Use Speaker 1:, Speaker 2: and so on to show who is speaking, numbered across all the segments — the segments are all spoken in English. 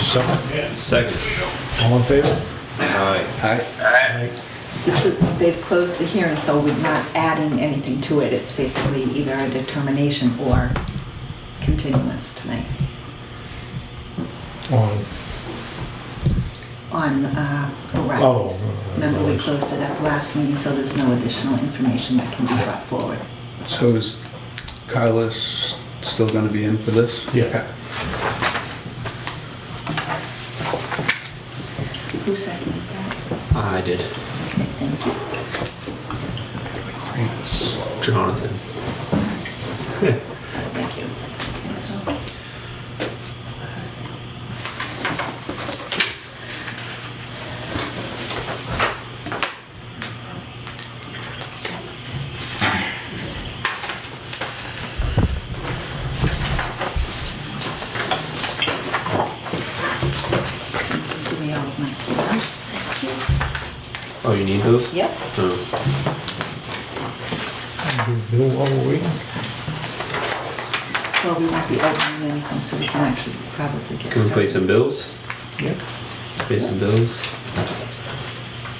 Speaker 1: second?
Speaker 2: Second.
Speaker 1: All in favor?
Speaker 2: Aye.
Speaker 1: Aye.
Speaker 3: This would, they've closed the hearing, so we're not adding anything to it. It's basically either a determination or continuance tonight
Speaker 1: On,
Speaker 3: on uh, O'Reilly's.
Speaker 1: Oh, uh,
Speaker 3: Remember, we
Speaker 1: O'Reilly's.
Speaker 3: closed it at the last meeting, so there's no additional information that can be brought forward.
Speaker 4: So is Carlos still going to be in for this?
Speaker 1: yeah.
Speaker 3: Who seconded that?
Speaker 2: I did.
Speaker 3: Okay, thank you.
Speaker 2: Jonathan.
Speaker 3: Thank you. Okay, so- Give me all of my papers, thank
Speaker 2: Oh, you need those?
Speaker 3: you. Yep.
Speaker 2: Oh.
Speaker 1: Do Bill while we're waiting?
Speaker 3: Well, we won't be opening anything, so we can actually probably get started.
Speaker 2: Can we pay some bills?
Speaker 1: Yep.
Speaker 2: Pay some bills?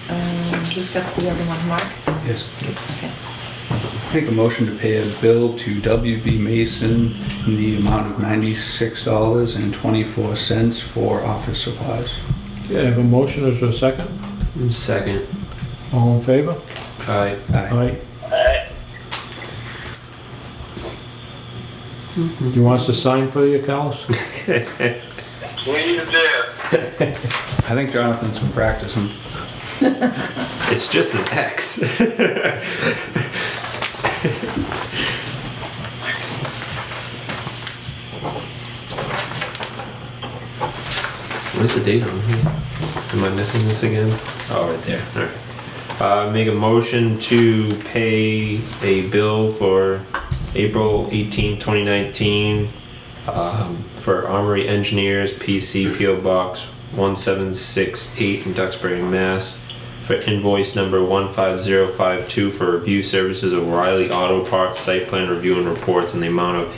Speaker 3: Um, Who's got the other one, Mark?
Speaker 4: Yes.
Speaker 3: Okay.
Speaker 4: Make a motion to pay a bill to WB Mason in the amount of $96.24 for office supplies.
Speaker 1: Okay, I have a motion, is there a second?
Speaker 2: Second.
Speaker 1: All in favor?
Speaker 2: Aye.
Speaker 4: Aye.
Speaker 1: Aye. You want us to sign for you, Carlos?
Speaker 5: Please do.
Speaker 4: I think Jonathan's been practicing.
Speaker 2: It's just an X. What is the date on here? Am I missing this again? Oh, right there. All right. Uh, make a motion to pay a bill for April 18, 2019 um, for Armory Engineers, PC PO Box 1768 in Duxbury, Mass. For invoice number 15052 for review services of Riley Auto Parts site plan review and reports in the amount of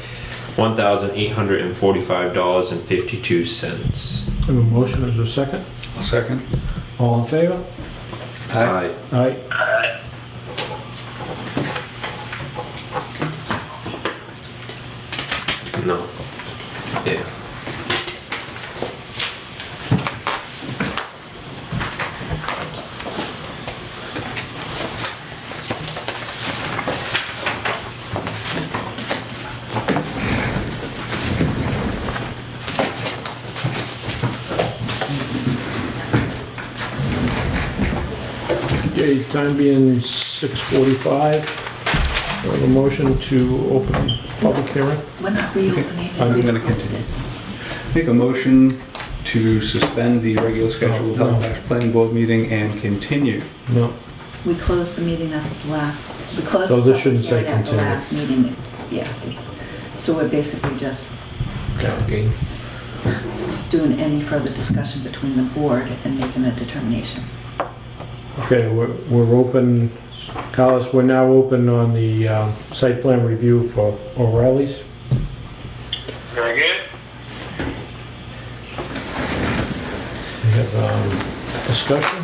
Speaker 2: $1,845.52.
Speaker 1: I have a motion, is there a second?
Speaker 4: I'll second.
Speaker 1: All in favor?
Speaker 2: Aye.
Speaker 1: Aye.
Speaker 2: No. Yeah.
Speaker 1: Okay, time being 6:45. I have a motion to open public hearing.
Speaker 3: We're not reopening.
Speaker 4: I'm
Speaker 3: We've
Speaker 4: gonna
Speaker 3: closed it.
Speaker 4: Make a motion to suspend the regular scheduled
Speaker 1: No, no.
Speaker 4: Halifax Planning Board meeting and continue.
Speaker 1: No,
Speaker 3: We closed the meeting at the last, we closed.
Speaker 1: So
Speaker 3: the
Speaker 1: this shouldn't say
Speaker 3: public hearing at the
Speaker 1: continue.
Speaker 3: last meeting, yeah. So we're basically just
Speaker 2: Okay.
Speaker 3: doing any further discussion between the board and making a determination.
Speaker 1: okay, we're we're open, Carlos, we're now open on the uh, site plan review for O'Reilly's.
Speaker 5: Very good.
Speaker 1: We have um, discussion.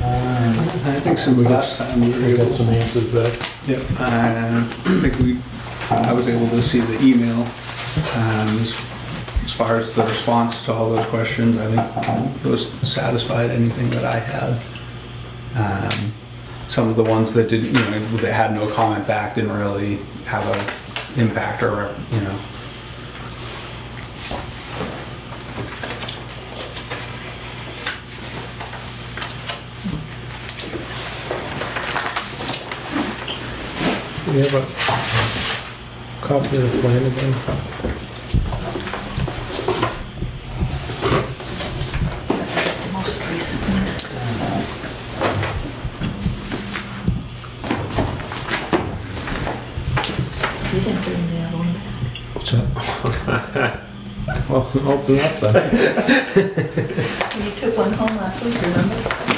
Speaker 4: I think since
Speaker 1: We got-
Speaker 4: last time Um, we were
Speaker 1: We
Speaker 4: able
Speaker 1: got some answers back.
Speaker 4: Yep, I think we, I was able to see the email, um, as- as far as the response to all those questions, I think those satisfied anything that I had. Um, Some of the ones that didn't, you know, that had no comment back didn't really have a impact or, you know.
Speaker 1: We have a copy of the plan again.
Speaker 3: Most recently. You didn't bring the other one back.
Speaker 1: What's that? Well, open up then.
Speaker 3: You took one home last week, remember?